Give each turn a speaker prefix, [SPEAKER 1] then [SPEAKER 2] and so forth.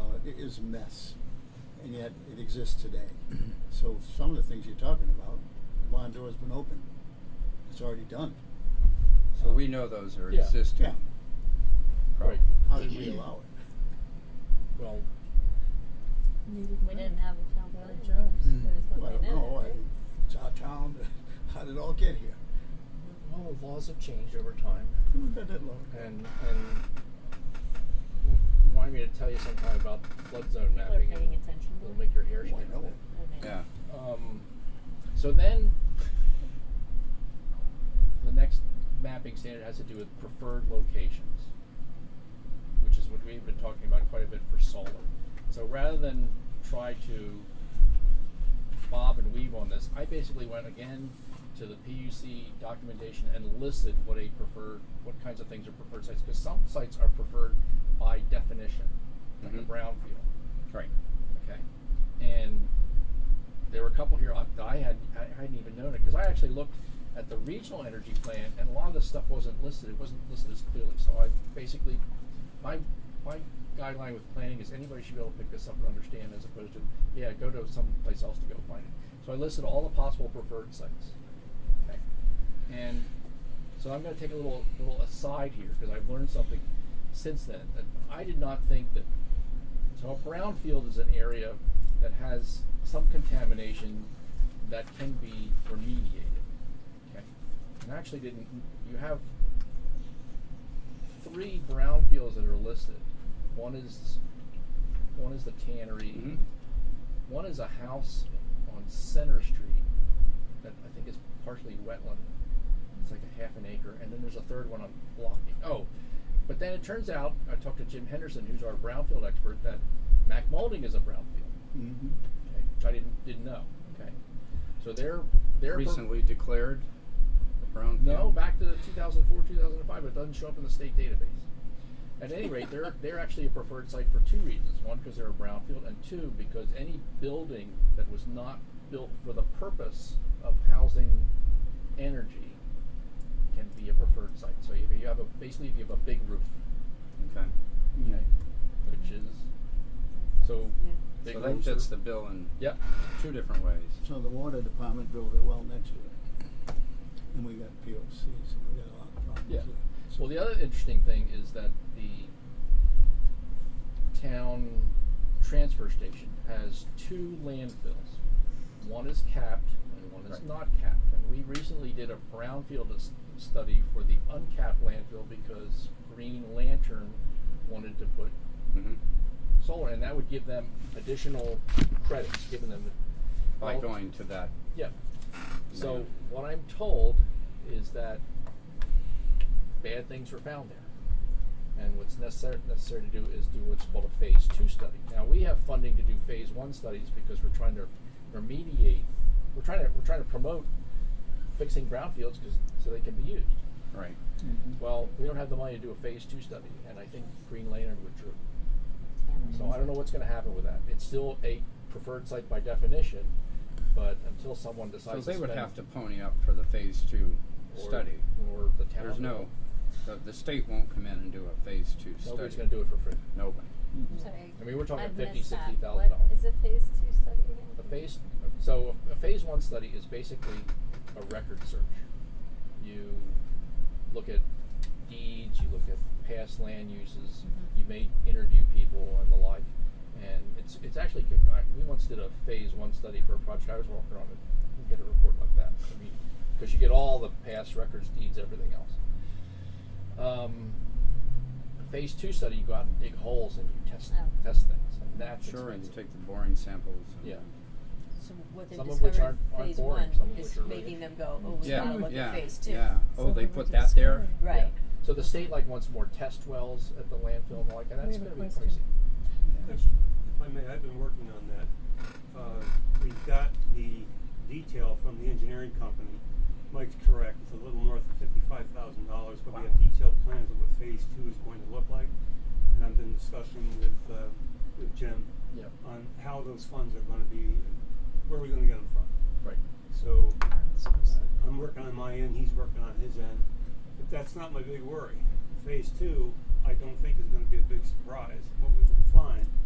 [SPEAKER 1] Uh, is a mess, and yet it exists today.
[SPEAKER 2] Mm-hmm.
[SPEAKER 1] So some of the things you're talking about, the barn door's been open. It's already done.
[SPEAKER 3] So we know those are
[SPEAKER 2] Yeah.
[SPEAKER 3] existing.
[SPEAKER 1] Yeah.
[SPEAKER 3] Right.
[SPEAKER 1] How did we allow it?
[SPEAKER 2] Well,
[SPEAKER 4] We didn't have a town
[SPEAKER 5] Well,
[SPEAKER 4] village.
[SPEAKER 5] jobs.
[SPEAKER 2] Mm.
[SPEAKER 4] There was
[SPEAKER 1] Well, I
[SPEAKER 4] nothing
[SPEAKER 1] don't
[SPEAKER 4] in
[SPEAKER 1] know.
[SPEAKER 4] it.
[SPEAKER 1] I, it's our town. How did it all get here?
[SPEAKER 2] well, laws have changed over time,
[SPEAKER 1] Who did that long ago?
[SPEAKER 2] and and you wanted me to tell you sometime about flood zone
[SPEAKER 4] People are
[SPEAKER 2] mapping.
[SPEAKER 4] paying
[SPEAKER 2] and
[SPEAKER 4] attention to
[SPEAKER 2] It'll
[SPEAKER 4] it.
[SPEAKER 2] make your hair
[SPEAKER 1] Why
[SPEAKER 2] stand
[SPEAKER 1] no?
[SPEAKER 2] up.
[SPEAKER 4] Okay.
[SPEAKER 3] Yeah.
[SPEAKER 2] Um, so then, the next mapping standard has to do with preferred locations, which is what we've been talking about quite a bit for solar. So rather than try to bob and weave on this, I basically went again to the PUC documentation and listed what a preferred, what kinds of things are preferred sites, because some sites are preferred by definition, like
[SPEAKER 3] Mhm.
[SPEAKER 2] a brownfield.
[SPEAKER 3] Right.
[SPEAKER 2] Okay. And there were a couple here I- that I had I hadn't even known it because I actually looked at the regional energy plan and a lot of this stuff wasn't listed. It wasn't listed as clearly. So I basically my my guideline with planning is anybody should be able to pick this up and understand as opposed to yeah go to someplace else to go find it. So I listed all the possible preferred sites. Okay. And so I'm going to take a little little aside here because I've learned something since then that I did not think that so a brownfield is an area that has some contamination that can be remediated. Okay. And actually didn't you have three brownfields that are listed. One is one is the tannery,
[SPEAKER 3] Mhm.
[SPEAKER 2] one is a house on Center Street that I think is partially wetland. It's like a half an acre, and then there's a third one on blocking. Oh, but then it turns out I talked to Jim Henderson, who's our brownfield expert, that Mac Molding is a brownfield,
[SPEAKER 1] Mm-hmm.
[SPEAKER 2] okay, which I didn't didn't know. Okay, so they're they're per-
[SPEAKER 3] Recently declared the brownfield.
[SPEAKER 2] no, back to 2004, 2005, but it doesn't show up in the state database. At any rate, they're they're actually a preferred site for two reasons: one, because they're a brownfield, and two, because any building that was not built for the purpose of housing energy can be a preferred site. So if you have a basically if you have a big roof,
[SPEAKER 3] Okay.
[SPEAKER 2] okay, which is so big
[SPEAKER 3] so that
[SPEAKER 2] roofs
[SPEAKER 3] fits
[SPEAKER 2] are-
[SPEAKER 3] the bill in
[SPEAKER 2] yep
[SPEAKER 3] two different ways.
[SPEAKER 1] So the water department built it well next to it. And we got POCs and we got a lot of problems
[SPEAKER 2] Yeah.
[SPEAKER 1] there.
[SPEAKER 2] Well, the other interesting thing is that the town transfer station has two landfills. One is capped and one is
[SPEAKER 3] Right.
[SPEAKER 2] not capped. And we recently did a brownfield s- study for the uncapped landfill because Green Lantern wanted to put
[SPEAKER 3] Mm-hmm.
[SPEAKER 2] solar, and that would give them additional credits, giving them
[SPEAKER 3] By
[SPEAKER 2] all-
[SPEAKER 3] going to that.
[SPEAKER 2] yeah. So
[SPEAKER 3] Yeah.
[SPEAKER 2] what I'm told is that bad things were found there. And what's necessary, necessary to do is do what's called a phase two study. Now we have funding to do phase one studies because we're trying to remediate, we're trying to, we're trying to promote fixing brownfields because, so they can be used.
[SPEAKER 3] Right.
[SPEAKER 1] Mm-hmm.
[SPEAKER 2] Well, we don't have the money to do a phase two study and I think Green Lantern withdrew. So I don't know what's gonna happen with that. It's still a preferred site by definition, but until someone
[SPEAKER 3] So
[SPEAKER 2] decides to
[SPEAKER 3] they would
[SPEAKER 2] spend-
[SPEAKER 3] have to pony up for the phase two
[SPEAKER 2] or-
[SPEAKER 3] study.
[SPEAKER 2] or the town.
[SPEAKER 3] There's no, the, the state won't come in and do a phase two study.
[SPEAKER 2] Nobody's going to do it for free.
[SPEAKER 3] Nobody.
[SPEAKER 4] I'm sorry.
[SPEAKER 2] I mean, we're talking
[SPEAKER 4] I
[SPEAKER 2] fifty,
[SPEAKER 4] missed that.
[SPEAKER 2] sixty thousand dollars.
[SPEAKER 4] What is a phase two study again?
[SPEAKER 2] A phase, so a phase one study is basically a record search. You look at deeds, you look at past land uses,
[SPEAKER 4] Mhm.
[SPEAKER 2] you may interview people and the like, and it's it's actually good. I, we once did a phase one study for a project I was working on, and get a report like that. I mean, because you get all the past records, deeds, everything else. Um, phase two study, you go out and dig holes and you test
[SPEAKER 4] Oh.
[SPEAKER 2] test things, and that's
[SPEAKER 3] Sure, and you
[SPEAKER 2] expensive.
[SPEAKER 3] take the boring samples. and-
[SPEAKER 2] Yeah.
[SPEAKER 5] So what they
[SPEAKER 2] Some of which
[SPEAKER 5] discovered
[SPEAKER 2] aren't- aren't
[SPEAKER 5] phase
[SPEAKER 2] boring,
[SPEAKER 5] one
[SPEAKER 2] some of
[SPEAKER 5] is
[SPEAKER 2] which are really-
[SPEAKER 5] making them go, oh, we
[SPEAKER 3] Yeah,
[SPEAKER 5] gotta look
[SPEAKER 3] yeah,
[SPEAKER 5] at phase two.
[SPEAKER 3] yeah. Oh, they
[SPEAKER 6] Something
[SPEAKER 3] put
[SPEAKER 6] to
[SPEAKER 3] that there?
[SPEAKER 6] discover.
[SPEAKER 5] Right.
[SPEAKER 2] Yeah. So the state like wants more test wells at the landfill and all like, and that's
[SPEAKER 6] We have a
[SPEAKER 2] gonna be
[SPEAKER 6] question.
[SPEAKER 2] pricey.
[SPEAKER 7] If I may, I've been working on that. Uh, we've got the detail from the engineering company. Mike's correct, it's a little north of fifty-five thousand dollars, but we have detailed plans of what phase two is going to look like. And I've been discussing with, uh, with Jim
[SPEAKER 2] Yeah,
[SPEAKER 7] on how those funds are gonna be, where are we gonna get them from?
[SPEAKER 2] right.
[SPEAKER 7] So, uh, I'm working on my end, he's working on his end, but that's not my big worry. Phase two, I don't think is gonna be a big surprise, what we can find.